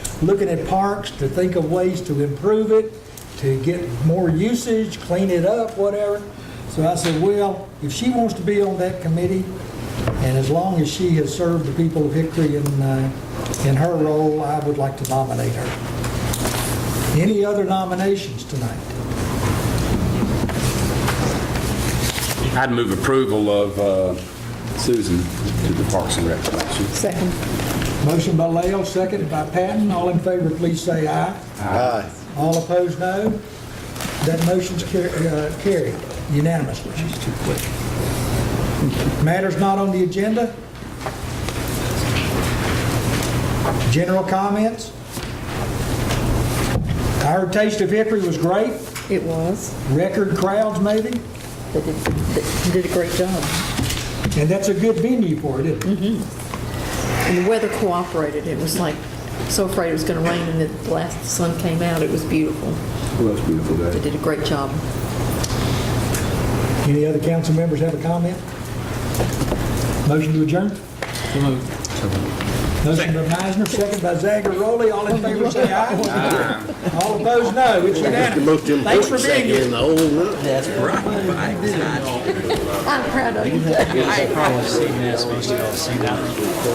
looking at parks to think of ways to improve it, to get more usage, clean it up, whatever. So I said, well, if she wants to be on that committee, and as long as she has served the people of Hickory in, uh, in her role, I would like to nominate her. Any other nominations tonight? I'd move approval of uh, Susan to the Parks and Rec Commission. Second. Motion by Lael, seconded by Patton. All in favor, please say aye. Aye. All opposed, no. That motion's car- uh, carried unanimously. She's too quick. Matters not on the agenda? General comments? Our taste of Hickory was great, It was. record crowds maybe, They did, they did a great job. and that's a good venue for it, isn't it? And the weather cooperated. It was like, so afraid it was going to rain, and then the last sun came out. It was beautiful. Well, that's beautiful They day. did a great job. Any other council members have a comment? Motion to adjourn? Motion by Meisner, second by Zagoroli. All in favor, say aye. All opposed, no. It's That's the unanimous. most important Thanks for thing being here. in the whole world. I'm proud of you. I've seen this, but you don't see that.